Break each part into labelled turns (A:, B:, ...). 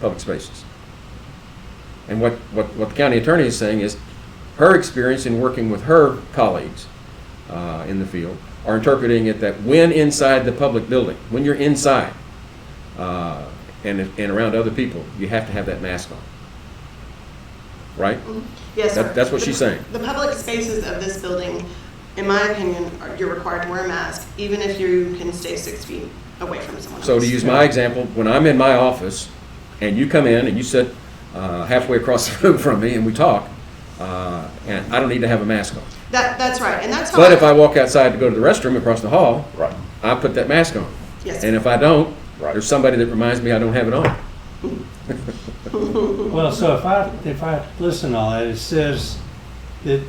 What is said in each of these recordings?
A: public spaces. And what, what, what the county attorney is saying is, her experience in working with her colleagues uh, in the field are interpreting it that when inside the public building, when you're inside uh, and, and around other people, you have to have that mask on. Right?
B: Mm-hmm. Yes, sir.
A: That- that's what she's saying.
B: The public spaces of this building, in my opinion, are, you're required to wear a mask, even if you can stay six feet away from someone else.
A: So to use my example, when I'm in my office and you come in and you sit uh, halfway across the room from me and we talk, uh, and I don't need to have a mask on.
B: That, that's right, and that's how.
A: But if I walk outside to go to the restroom across the hall,
C: Right.
A: I put that mask on.
B: Yes.
A: And if I don't,
C: Right.
A: there's somebody that reminds me I don't have it on.
D: Well, so if I, if I listen to all that, it says that,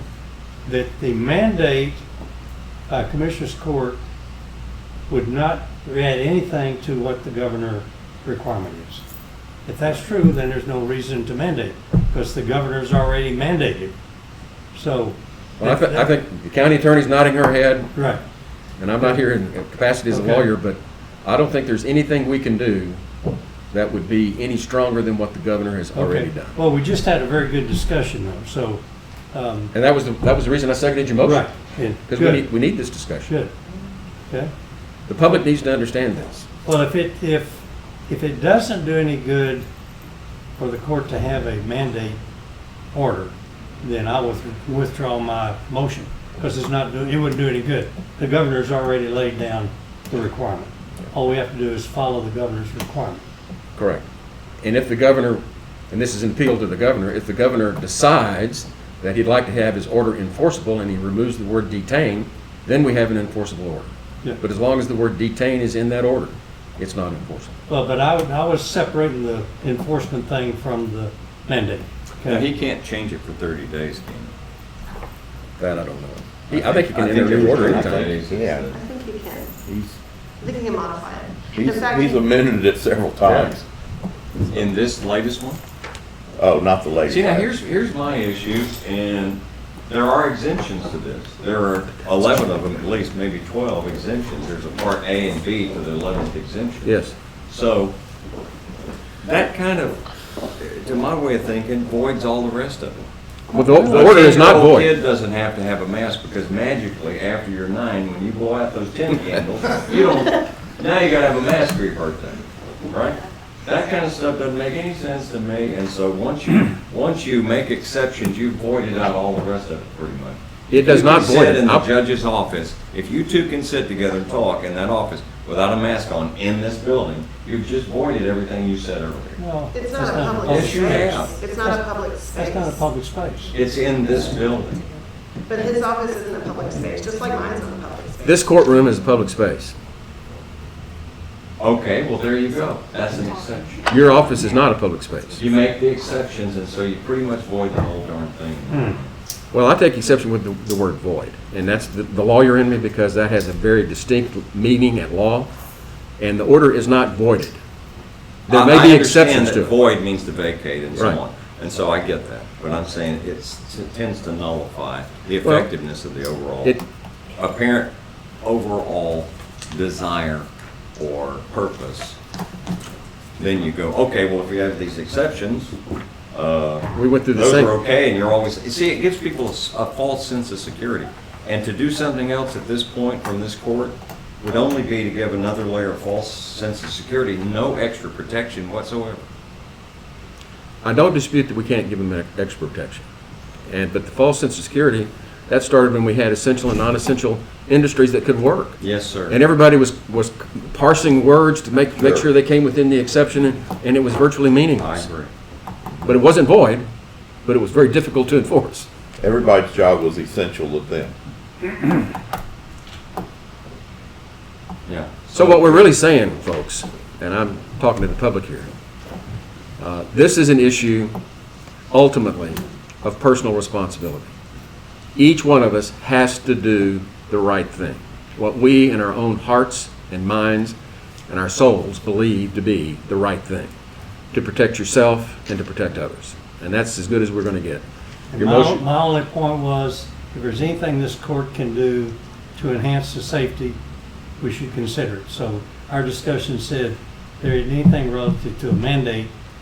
D: that the mandate by Commissioners Court would not add anything to what the governor requirement is. If that's true, then there's no reason to mandate, because the governor's already mandated. So.
A: Well, I, thi- I think the county attorney's nodding her head,
D: Right.
A: and I'm not here in capacity as a
D: Okay.
A: lawyer, but I don't think there's anything we can do that would be any stronger than what the governor has already
D: Okay.
A: done.
D: Well, we just had a very good discussion though, so, um,
A: And that was, the that was the reason I seconded your motion.
D: right, yeah,
A: Because we need,
D: good,
A: we need this discussion.
D: good. Okay.
A: The public needs to understand this.
D: Well, if it, if, if it doesn't do any good for the court to have a mandate order, then I will withdraw my motion, because it's not, do- it wouldn't do any good. The governor's already laid down the requirement. All we have to do is follow the governor's requirement.
A: Correct. And if the governor, and this is an appeal to the governor, if the governor decides that he'd like to have his order enforceable and he removes the word detain, then we have an enforceable order.
D: Yeah.
A: But as long as the word detain is in that order, it's not enforceable.
D: Well, but I, would- I was separating the enforcement thing from the mandate.
C: Now,
D: okay?
C: he can't change it for 30 days, can he?
A: That I don't know. He- I think he can
C: I think
A: enter a new
C: every
A: order
C: 30
A: anytime.
C: days is
E: Yeah.
C: the-
B: I think you can, I
E: He's,
B: think you can modify it.
E: he's,
B: In fact,
E: he's amended it several times.
C: In this latest one?
E: Oh, not the lady.
C: See, now, here's, here's my issue, and there are exemptions to this. There are 11 of them, at least, maybe 12 exemptions. There's a part A and B to the 11th exemption.
A: Yes.
C: So, that kind of, to my way of thinking, voids all the rest of it.
A: Well, the the
C: A
A: order is not
C: 10-year-old
A: void.
C: Kid doesn't have to have a mask because magically after you're nine, when you blow out those tin candles, you don't, now you gotta have a mask for your birthday, right? That kind of stuff doesn't make any sense to me, and so once you, once you make exceptions, you've voided out all the rest of it pretty much.
A: It does
C: You
A: not
C: can
A: void
C: sit
A: it.
C: in the
A: I'll-
C: judge's office, if you two can sit together and talk in that office without a mask on in this building, you've just voided everything you said earlier.
D: No,
B: It's
D: that's
B: not a public
C: public
B: space.
C: space.
B: It's not a public space.
D: That's not a public space.
C: It's in this building.
B: But his office isn't a public space, just like mine's not a public space.
A: This courtroom is a public space.
C: Okay, well, there you go. That's an exception.
A: Your office is not a public space.
C: You make the exceptions, and so you pretty much void the whole darn thing.
A: Well, I take exception with the, the word void, and that's the, the lawyer in me because that has a very distinct meaning at law, and the order is not voided. There
C: I-
A: may
C: I
A: be
C: understand
A: exceptions
C: that
A: to it.
C: Void means to vacate and so
A: Right.
C: on, and so I get that. But I'm saying it's, it tends to nullify the
A: Well,
C: effectiveness of the overall,
A: It,
C: apparent overall desire or purpose. Then you go, okay, well, if we have these exceptions, uh,
A: we went through the
C: Those are
A: same,
C: okay, and you're always, you see, it gives people a s- a false sense of security. And to do something else at this point from this court would only be to give another layer of false sense of security, no extra protection whatsoever.
A: I don't dispute that we can't give them ex- extra protection. And, but the false sense of security, that started when we had essential and non-essential industries that could work.
C: Yes, sir.
A: And everybody was, was parsing words to make, make
C: Sure.
A: sure they came within the exception, and- and it was virtually
C: I
A: meaningless.
C: agree.
A: But it wasn't void, but it was very difficult to enforce.
E: Everybody's job was essential to them.
C: Yeah.
A: So what we're really saying, folks, and I'm talking to the public here, uh, this is an issue ultimately of personal responsibility. Each one of us has to do the right thing, what we in our own hearts and minds and our souls believe to be the right thing, to protect yourself and to protect others. And that's as good as we're going to get.
D: And
A: Your
D: My,
A: motion,
D: my only point was, if there's anything this court can do to enhance the safety, we should consider it. So our discussion said, there is anything relative to a mandate,